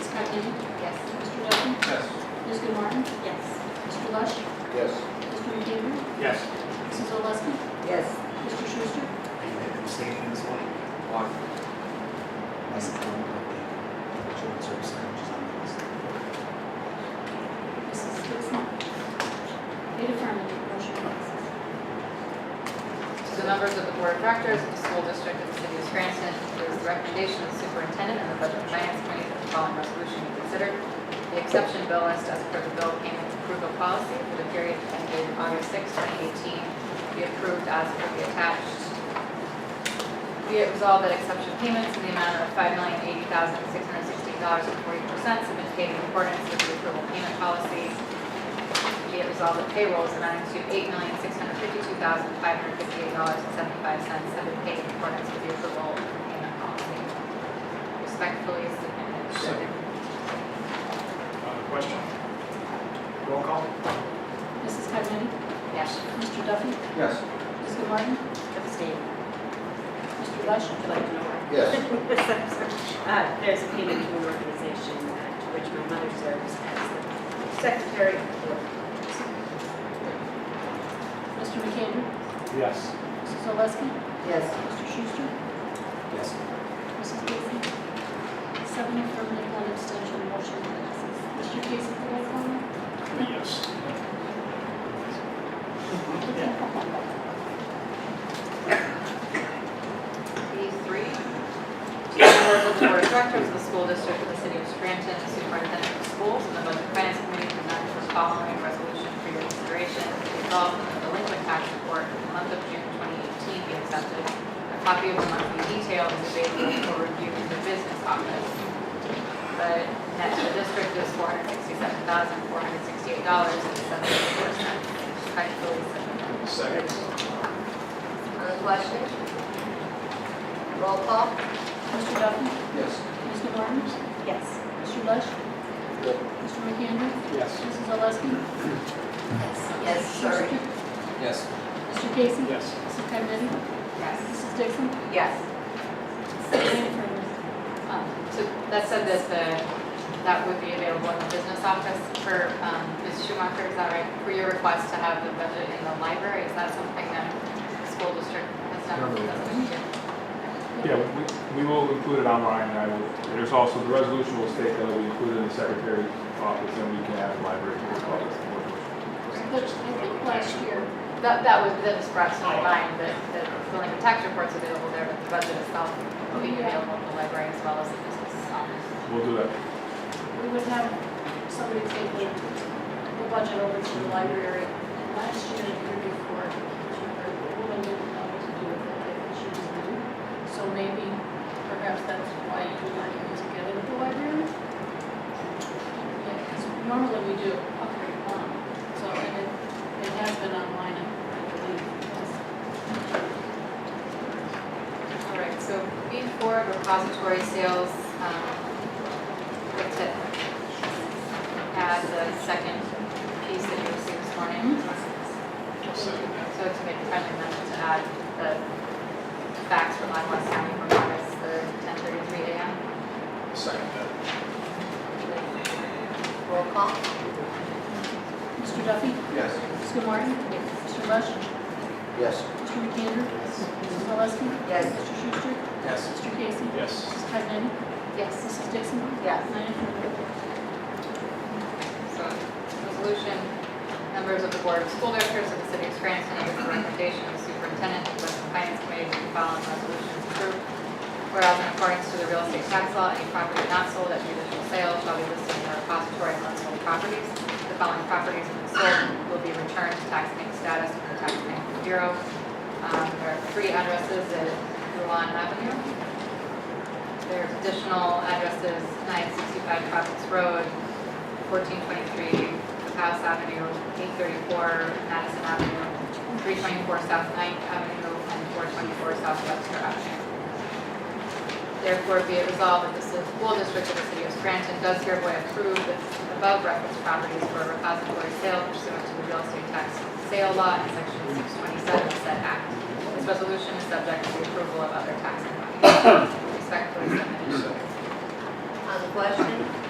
Denny? Yes. Mr. Duffy? Yes. Ms. Martin? Yes. Mr. Lush? Yes. Mr. McDaniel? Yes. Mrs. Oleski? Yes. Mr. Schuster? I made a mistake in this one. Why? That's the problem with the children's service center, which is on the list. Mrs. Dixon? Eight affirmative, motion passes. To the members of the Board of Directors of the School District of the City of Scranton, it is the recommendation of the superintendent and the Budget and Finance Committee that the following resolution be considered. The exception bill list as per the bill payment approval policy for the period ending August 6, 2018, be approved as per the attached. Be it resolved that exception payments in the amount of $5,080,616.44 have been paid in accordance with the approval payment policy be it resolved that payrolls amounting to eight million, six hundred fifty-two thousand, five hundred fifty-eight dollars and seventy-five cents have been paid in accordance with the approval payment policy. Respectfully submitted. Uh, question? Roll call? Mrs. Cudmany? Yes. Mr. Duffy? Yes. Ms. Martin? Abstain. Mr. Lush? Would like to know where. Yes. Uh, There's a payment to an organization uh, to which my mother serves as the secretary. Mr. McAndrew? Yes. Mrs. Oleski? Yes. Mr. Schuster? Yes. Mrs. Dixon? Seven affirmative, one abstention, motion passes. Mr. Casey, can I call Yes. B three, to the members of the Board of Directors of the School District of the City of Scranton, the Superintendent of Schools, and the Budget and Finance Committee presents the following resolution for your consideration. Resolved that the delinquent tax report for the month of June 2018 be accepted. A copy of the monthly detail is available for review in the business office. The net to the district is $467,468.74. Respectfully submitted. Second? Other questions? Roll call? Mr. Duffy? Yes. Ms. Martin? Yes. Mr. Lush? Mr. McAndrew? Yes. Mrs. Oleski? Yes, sorry. Schuster? Yes. Mr. Casey? Yes. Mrs. Cudmany? Yes. Mrs. Dixon? Yes. Seven affirmative. Um, So that said, that the, that would be available in the business office for, um, Ms. Schumacher, is that right? For your request to have the budget in the library, is that something that the school district has done? Normally Yes. Yeah, we, we will include it online, and I will, there's also, the resolution will state that we include it in the secretary's office, and we can add the library to the office. But I think last year, That, that was, that was brought to my mind, that, that the Lincoln tax report's available there, but the budget itself will be available in the library as well as the business office. We'll do that. we would have somebody take the, the budget over to the library. And last year, the year before, the woman didn't know what to do with it, I think she was new. So maybe, perhaps that's why you were able to get it at the library? Yeah, because normally we do, okay, um, so, and it, it has been online, I believe, yes. All right, so B four, repository sales, um, like to add the second piece that you received this morning. So to make a friendly amendment to add the facts from Lackawanna County from August the ten thirty-three AM. Second that. Roll call? Mr. Duffy? Yes. Mr. Martin? Mr. Lush? Yes. Mr. McAndrew? Mrs. Oleski? Yes. Mr. Schuster? Yes. Mr. Casey? Yes. Mrs. Pagnani? Yes. Mrs. Dixon? Yes. Nine affirmative. So, resolution, members of the Board of School Directors of the City of Scranton, with the recommendation of the superintendent and the Budget and Finance Committee, the following resolutions approved. Whereas in accordance to the real estate tax law, any property not sold at judicial sale shall be listed in the repository of unsold properties. The following properties when sold will be returned to taxing status from the taxing bureau. Um, There are three addresses at Ruan Avenue. There's additional addresses, 965 Providence Road, 1423 House Avenue, 834 Madison Avenue, 324 South Ninth Avenue, and 424 South Webster Avenue. Therefore, be it resolved that the school district of the city of Scranton does hereby approve the above referenced properties for a repository sale pursuant to the real estate tax sale law and section 627 of said act. This resolution is subject to the approval of other taxing bodies. Respectfully submitted. Second. On the question?